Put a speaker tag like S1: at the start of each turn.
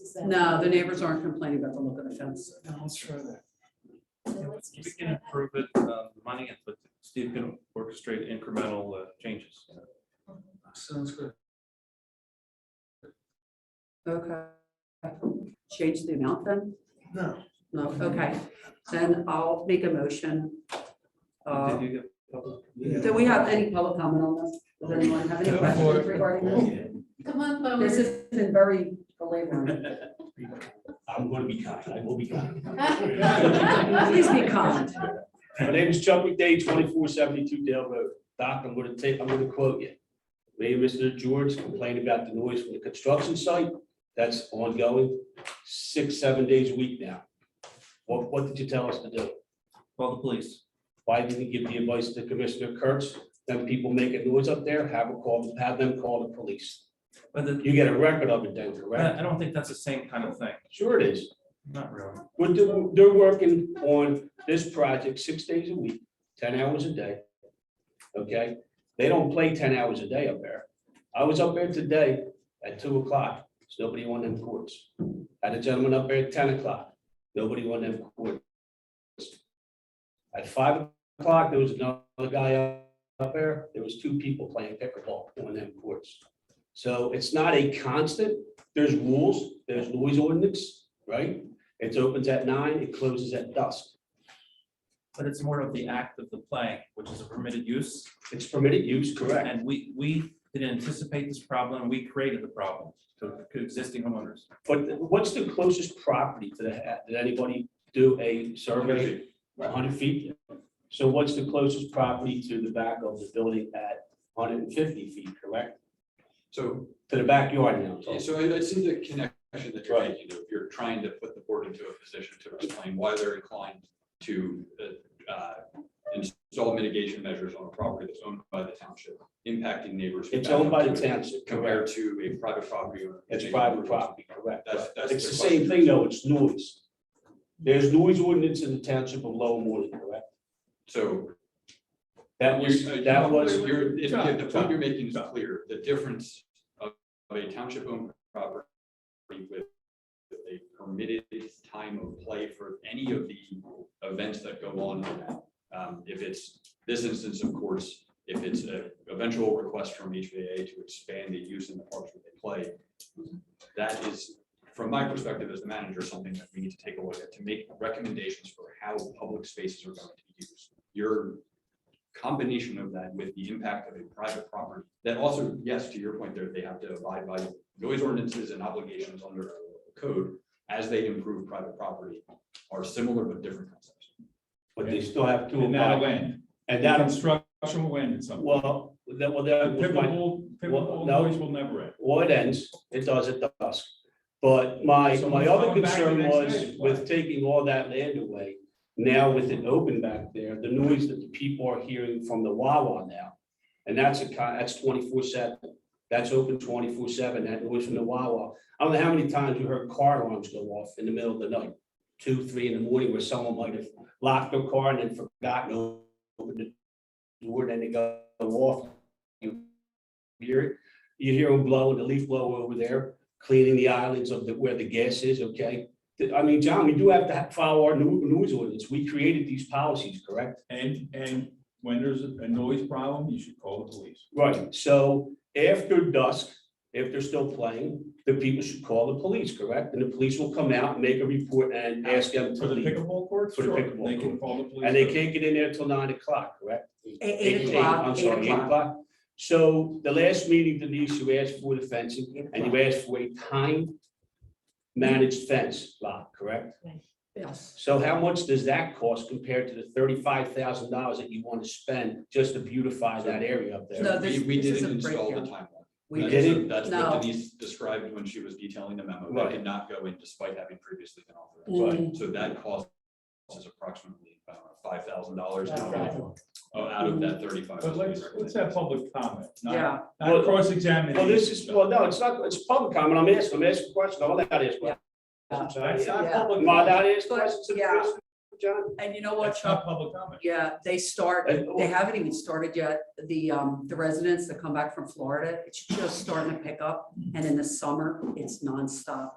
S1: Is that-
S2: No, the neighbors aren't complaining about the look of the fence.
S3: Now, let's try that.
S1: So let's
S4: We
S1: just
S4: can
S1: try
S4: improve it, uh, money, it, but Steve can orchestrate incremental uh, changes.
S3: Sounds good.
S2: Okay. Change the amount then?
S3: No.
S2: No, okay. Then I'll make a motion. Uh,
S4: Did you get public?
S2: Do we have any public comment on this? Does anyone have any
S3: Go
S2: questions
S3: for it.
S2: regarding this?
S1: that. Come on, forward.
S2: This has been very belaboring.
S5: I'm gonna be kind, I will be kind.
S2: Please be kind.
S5: My name is Chuck McDay, twenty-four seventy-two Dale Road. Doc, I'm gonna take, I'm gonna quote you. Mayor Mr. George complained about the noise from the construction site. That's ongoing, six, seven days a week now. What, what did you tell us to do?
S4: Call the police.
S5: Why didn't you give the advice to Commissioner Kurtz? Then people making noise up there, have a call, have them call the police.
S4: But the-
S5: You get a record of it, Denver, right?
S4: I I don't think that's the same kind of thing.
S5: Sure it is.
S4: Not really.
S5: We're doing, they're working on this project six days a week, ten hours a day. Okay, they don't play ten hours a day up there. I was up there today at two o'clock, There's nobody on them courts. Had a gentleman up there at ten o'clock, nobody on them courts. At five o'clock, there was another guy up- up there, there was two people playing pickleball on them courts. So it's not a constant, there's rules, there's noise ordinance, right? It opens at nine, it closes at dusk.
S4: But it's more of the act of the playing, which is a permitted use.
S5: It's permitted use, correct?
S4: And we, we didn't anticipate this problem. We created the problem to to existing homeowners.
S5: But what's the closest property to that? Did anybody do a survey? Hundred feet? So what's the closest property to the back of the building at hundred and fifty feet, correct?
S6: So,
S5: To the backyard now. so-
S6: so I, I see the connection that you're
S5: Right.
S6: making, if you're trying to put the board into a position to explain why they're inclined to, uh, uh, install mitigation measures on a property that's owned by the township, impacting neighbors.
S5: It's owned by the township,
S6: Compared
S5: correct?
S6: to a private property. owner.
S5: It's private property, correct?
S6: That's, that's.
S5: It's the same
S6: their question.
S5: thing though, it's noise. There's noise ordinance in the township of Lower Moreland, correct?
S6: So
S5: That was,
S6: You-
S5: that was.
S6: you're- if- if The point
S5: John,
S6: you're making is clear, the difference of of a township owned property with with a permitted time of play for any of the events that go on on that. Um, If it's this instance, of course, if it's an eventual request from HVA to expand the use in the parks where they play, that is, from my perspective as the manager, something that we need to take a look at to make recommendations for how public spaces are going to be used. Your combination of that with the impact of a private property, that also, yes, to your point there, they have to abide by noise ordinances and obligations under code as they improve private property are similar but different concepts.
S5: But they still have to.
S7: And that'll
S5: abide-
S7: end.
S5: And that,
S7: Construction will end at some. point.
S5: well, that, well, that was my
S7: Pickleball, pickleball
S5: no.
S7: noise will never end.
S5: Well, it ends, it does at dusk. But my,
S7: So
S5: my
S7: we're
S5: other
S7: going back the
S5: concern
S7: next
S5: was
S7: day.
S5: with taking all that land away, now with it open back there, the noise that the people are hearing from the Wawa now. And that's a, con- that's twenty-four seven, that's open twenty-four seven, that noise from the Wawa. I don't know how many times you heard car alarms go off in the middle of the night, two, three in the morning, where someone might have locked their car and then forgotten to open the door, then they go off. You hear it, you hear them blowing, the leaf blower over there, cleaning the islands of the, where the gas is, okay? Th- I mean, John, we do have to ha- follow our new news ordinance. We created these policies, correct?
S7: And, and when there's a a noise problem, you should call the police.
S5: Right, so after dusk, if they're still playing, the people should call the police, correct? And the police will come out and make a report and ask them to
S7: For the
S5: leave.
S7: pickleball courts?
S5: For the
S7: Sure,
S5: pickleball
S7: They can
S5: court.
S7: call the police.
S5: And they can't get in there till nine o'clock, correct?
S2: Eight o'clock,
S5: I'm
S2: eight
S5: sorry, eight
S2: o'clock.
S5: o'clock. So the last meeting, Denise, you asked for the fencing. And you asked for a time managed fence lot, correct?
S2: Yes.
S5: So how much does that cost compared to the thirty-five thousand dollars that you want to spend just to beautify that area up there?
S2: No,
S6: We,
S2: this-
S6: we
S2: this
S6: didn't
S2: is a
S6: install the
S2: breakdown.
S6: timeline.
S2: We
S6: That's-
S2: did.
S5: didn't?
S6: That's
S2: No.
S6: what Denise described when she was detailing the memo. That
S5: Right.
S6: did not go in despite having previously been authorized.
S2: Mm.
S6: So that cost is approximately uh, five thousand dollars uh,
S2: That's right.
S6: out of that thirty-five.
S7: But let's, let's have public comment, not,
S2: Yeah,
S5: Well-
S7: not cross-examination.
S5: Well, this is, well, no, it's not, it's public comment. I'm asking, I'm asking a question. I'm allowed to ask questions.
S2: Yeah.
S7: That's
S5: John.
S7: not
S2: Yeah.
S7: public.
S5: Am I allowed to ask
S2: But,
S5: questions to the
S2: yeah.
S5: person, John?
S2: and you know what,
S7: That's not
S2: Chuck?
S7: public comment.
S2: Yeah, they start,
S5: And-
S2: they haven't even started yet. The, um, the residents that come back from Florida, it's just starting to pick up. And in the summer, it's nonstop.